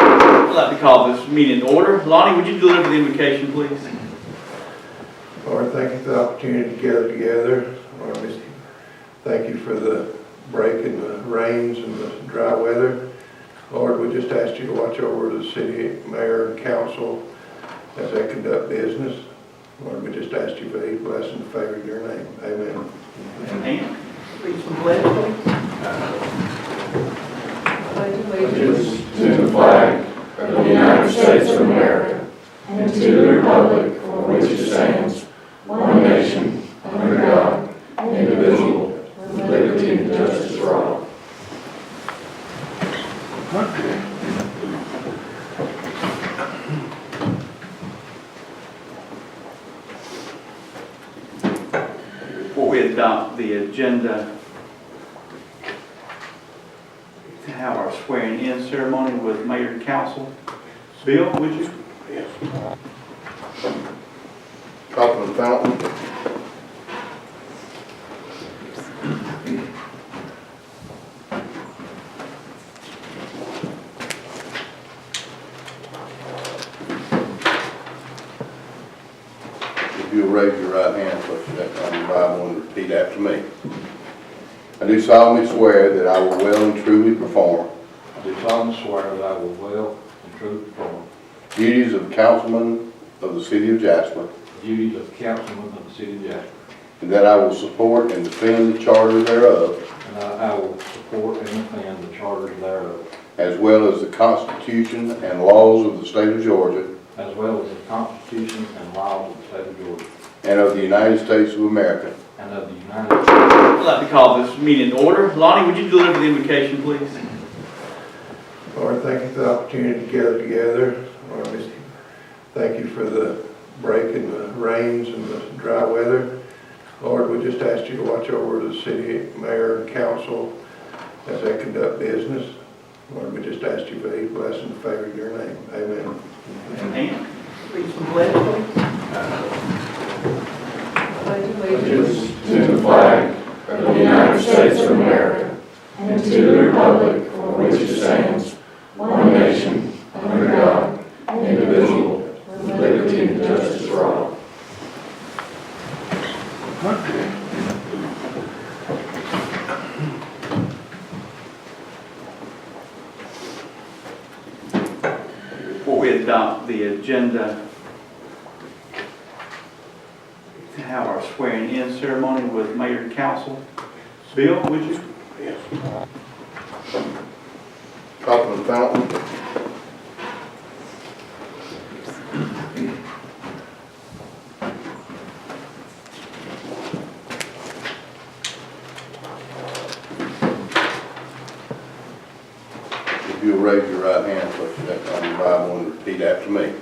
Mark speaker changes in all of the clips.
Speaker 1: I'd like to call this meeting to order. Lonnie, would you deliver the invocation, please?
Speaker 2: Lord, thank you for the opportunity to gather together. Lord, we thank you for the break in the rains and the dry weather. Lord, we just ask you to watch over the city mayor and council as they conduct business. Lord, we just ask you for each blessing to favor your name. Amen.
Speaker 1: And please, the pledge, please.
Speaker 3: allegiance to the flag of the United States of America and to the republic for which it stands, one nation, under God, indivisible, with liberty and justice for all.
Speaker 1: Before we adopt the agenda, to have our swearing-in ceremony with mayor and council. Bill, would you?
Speaker 2: Top of the fountain.
Speaker 4: If you'll raise your right hand, put your left hand on your Bible and repeat after me. I do solemnly swear that I will well and truly perform
Speaker 5: I do solemnly swear that I will well and truly perform
Speaker 4: the duties of councilman of the city of Jasper,
Speaker 5: the duties of councilman of the city of Jasper,
Speaker 4: and that I will support and defend the charter thereof,
Speaker 5: and I I will support and defend the charters thereof,
Speaker 4: as well as the Constitution and laws of the state of Georgia
Speaker 5: as well as the Constitution and laws of the state of Georgia,
Speaker 4: and of the United States of America.
Speaker 5: and of the United States.
Speaker 1: I'd like to call this meeting to order. Lonnie, would you deliver the invocation, please?
Speaker 2: Lord, thank you for the opportunity to gather together. Lord, we thank you for the break in the rains and the dry weather. Lord, we just ask you to watch over the city mayor and council as they conduct business. Lord, we just ask you for each blessing to favor your name. Amen.
Speaker 1: And please, the pledge, please.
Speaker 3: allegiance to the flag of the United States of America and to the republic for which it stands, one nation, under God, indivisible, with liberty and justice for all.
Speaker 1: Before we adopt the agenda, to have our swearing-in ceremony with mayor and council. Bill, would you?
Speaker 4: Top of the fountain. If you'll raise your right hand, put your left hand on your Bible and repeat after me.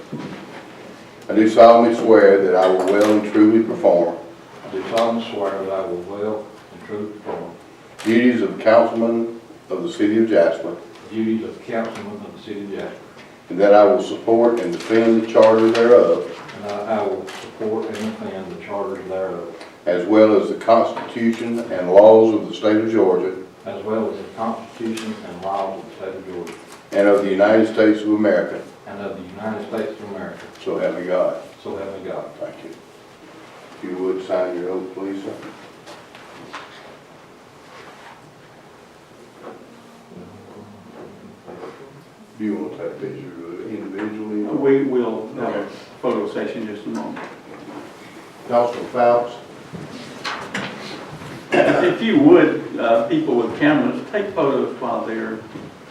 Speaker 4: I do solemnly swear that I will well and truly perform
Speaker 5: I do solemnly swear that I will well and truly perform
Speaker 4: the duties of councilman of the city of Jasper,
Speaker 5: the duties of councilman of the city of Jasper,
Speaker 4: and that I will support and defend the charter thereof,
Speaker 5: and I I will support and defend the charters thereof,
Speaker 4: as well as the Constitution and laws of the state of Georgia
Speaker 5: as well as the Constitution and laws of the state of Georgia,
Speaker 4: and of the United States of America,
Speaker 5: and of the United States of America,
Speaker 4: so help me God.
Speaker 5: so help me God.
Speaker 4: Thank you. If you would, sign your oath, please, sir. Do you want to take pictures of it individually? or-
Speaker 1: We will have a photo session just in a moment.
Speaker 4: Councilman Fouts?
Speaker 1: If you would, uh, people with cameras, take photos while they're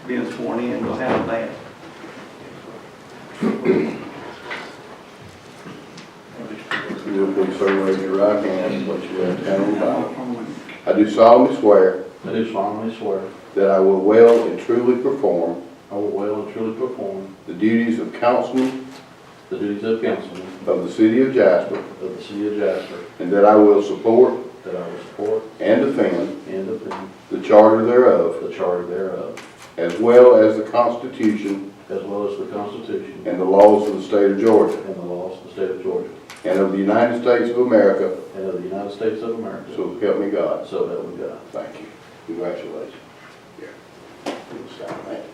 Speaker 1: being sworn in, we'll have that.
Speaker 4: If you would, please, sir, raise your right hand and put your left hand on the Bible. I do solemnly swear
Speaker 5: I do solemnly swear
Speaker 4: that I will well and truly perform
Speaker 5: I will well and truly perform
Speaker 4: the duties of councilman
Speaker 5: the duties of councilman
Speaker 4: of the city of Jasper,
Speaker 5: of the city of Jasper,
Speaker 4: and that I will support
Speaker 5: that I will support
Speaker 4: and defend
Speaker 5: and defend
Speaker 4: the charter thereof,
Speaker 5: the charter thereof,
Speaker 4: as well as the Constitution
Speaker 5: as well as the Constitution
Speaker 4: and the laws of the state of Georgia
Speaker 5: and the laws of the state of Georgia,
Speaker 4: and of the United States of America,
Speaker 5: and of the United States of America,
Speaker 4: so help me God.
Speaker 5: so help me God.
Speaker 4: Thank you. Congratulations. Here, we'll sign that.